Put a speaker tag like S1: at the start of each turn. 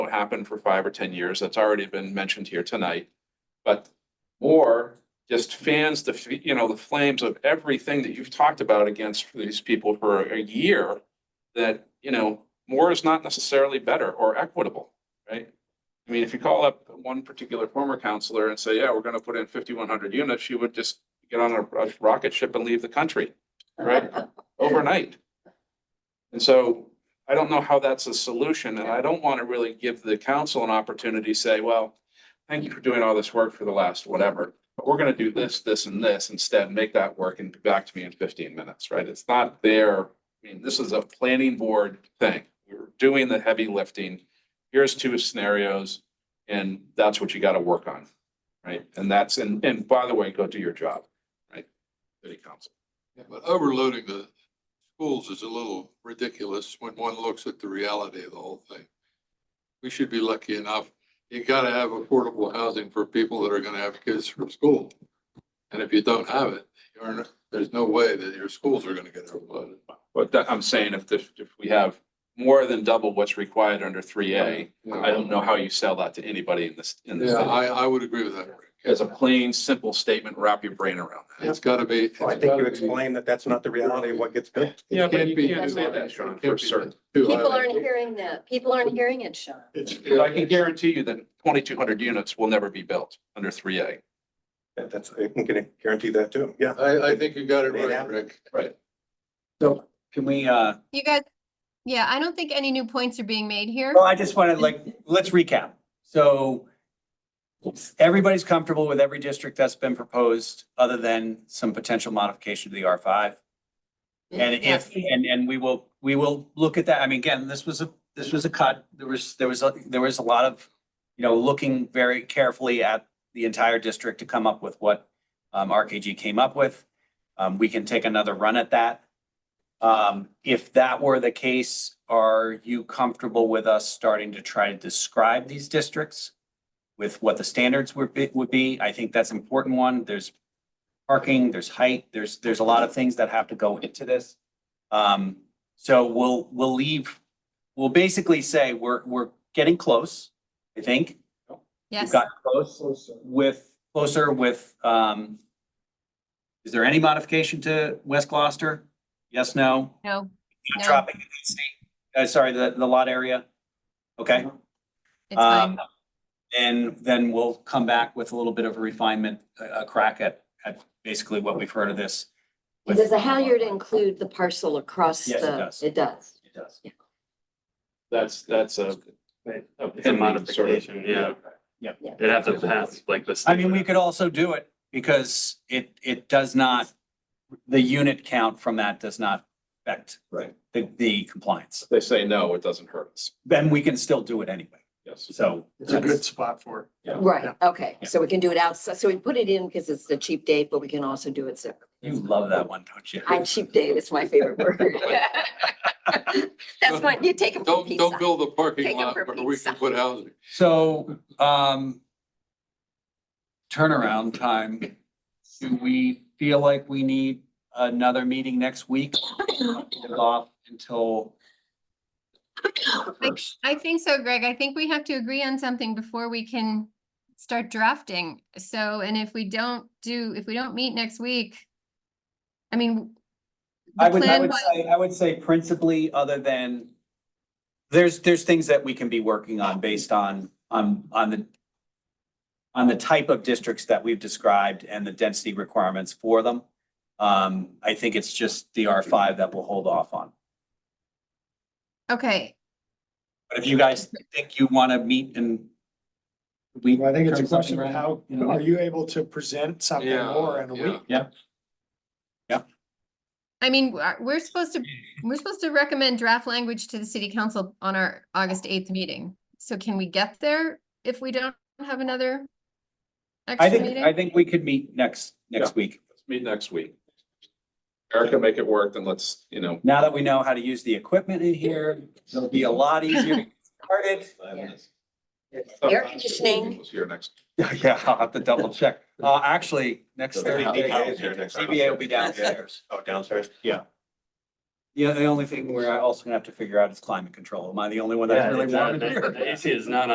S1: happened for five or ten years. That's already been mentioned here tonight. But more just fans the, f- you know, the flames of everything that you've talked about against these people for a year. That, you know, more is not necessarily better or equitable, right? I mean, if you call up one particular former counselor and say, yeah, we're gonna put in fifty-one hundred units, she would just get on a a rocket ship and leave the country, right? Overnight. And so I don't know how that's a solution, and I don't want to really give the council an opportunity to say, well, thank you for doing all this work for the last whatever, but we're gonna do this, this, and this instead, make that work and be back to me in fifteen minutes, right? It's not their, I mean, this is a planning board thing. We're doing the heavy lifting. Here's two scenarios, and that's what you gotta work on, right? And that's, and, and by the way, go do your job, right? City council.
S2: Yeah, But overloading the schools is a little ridiculous when one looks at the reality of the whole thing. We should be lucky enough, you gotta have affordable housing for people that are gonna have kids from school. And if you don't have it, you're, in- there's no way that your schools are gonna get overloaded.
S1: But that, I'm saying if, this- if we have more than double what's required under three A, I don't know how you sell that to anybody in this, in this.
S2: Yeah, I, I would agree with that. Rick.
S1: As a plain, simple statement, wrap your brain around that.
S2: It's gotta be.
S3: Well, I
S2: it's
S3: think you
S2: gotta be-
S3: explained that that's not the reality of what gets built.
S1: Yeah,
S2: but you can't
S4: say
S2: that,
S1: Sean,
S2: It can't be too high.
S4: People aren't hearing that. People aren't hearing it, Sean.
S2: It's-
S1: But I can guarantee you that twenty-two hundred units will never be built under three A.
S3: Yeah, That's, I can guar- guarantee that too, yeah.
S2: I, I think you got it right, Rick.
S5: So can we, uh,
S6: You guys, yeah, I don't think any new points are being made here.
S5: well, I just want to like, let's recap. So everybody's comfortable with every district that's been proposed, other than some potential modification to the R five. And if, and, and we will, we will look at that. I mean, again, this was a, this was a cut. There was, there was, a there was a lot of, you know, looking very carefully at the entire district to come up with what, um, RKG came up with. Um, we can take another run at that. Um, if that were the case, are you comfortable with us starting to try to describe these districts? With what the standards would be, would be? I think that's an important one. There's parking, there's height, there's, there's a lot of things that have to go into this. Um, so we'll, we'll leave, we'll basically say we're, we're getting close, I think. We've
S6: Yes,
S5: gotten close with, closer with, um, is there any modification to West Gloucester? Yes, no?
S6: no, No.
S5: Dropping the density, uh, sorry, the, the lot area? Okay.
S6: it's fine.
S5: Um, And then we'll come back with a little bit of a refinement, a, a crack at, at basically what we've heard of this. with-
S4: Does the Halyard include the parcel across the?
S5: Yes, it does.
S4: It does.
S5: It does.
S1: That's, that's a. a
S7: It's a
S1: pending sort of-
S7: modification, yeah.
S5: Yeah.
S7: It'd have to pass like the.
S5: I mean, we could also do it because it, it does not, the unit count from that does not affect
S1: Right.
S5: the, the compliance.
S1: If They say no, it doesn't hurt us.
S5: Then we can still do it anyway.
S1: Yes.
S5: So. that's-
S7: spot for it.
S4: Right, okay.
S5: Yeah.
S4: So we can do it outside. So we put it in because it's the cheap date, but we can also do it separate.
S5: You love that one, don't you?
S4: I, cheap date is my favorite word. That's what you take them from
S2: Don't,
S4: pizza.
S2: don't build a
S4: Take
S2: parking
S4: 'em
S2: lot
S4: for
S2: where we can
S4: pizza.
S2: put housing.
S5: So, um, turnaround time, do we feel like we need another meeting next week? Off until the first.
S6: I think so, Greg. I think we have to agree on something before we can start drafting. So, and if we don't do, if we don't meet next week, I mean,
S5: I
S6: the
S5: would, I
S6: plan
S5: would
S6: was,
S5: say, I would say principally, other than there's, there's things that we can be working on based on, on, on the on the type of districts that we've described and the density requirements for them. Um, I think it's just the R five that we'll hold off on.
S6: okay,
S5: But if you guys think you want to meet and we.
S8: Well, I think it's a
S5: turn something
S8: question of
S5: around,
S8: how,
S5: you know,
S8: are you able to present something
S2: Yeah,
S8: more in a
S2: yeah.
S8: week?
S6: I mean, we're- we're supposed to, we're supposed to recommend draft language to the city council on our August eighth meeting. So can we get there if we don't have another
S5: I
S6: extra
S5: think, I
S6: meeting?
S5: think we could meet next, next week.
S1: Let's meet next week. Erica, make it work, then let's, you know,
S5: Now that we know how to use the equipment in here, it'll be a lot easier to get started.
S4: Air conditioning.
S1: Here next.
S5: Yeah, I'll have to double check. Uh, actually, next
S3: So the
S5: Thursday,
S3: DBA is here next
S5: CBA will be downstairs.
S3: Oh, downstairs?
S5: Yeah, the only thing we're also gonna have to figure out is climate control. Am I the only one that's
S7: Yeah,
S5: really
S7: it's
S5: warm
S7: not-
S5: in here?
S7: The AC is not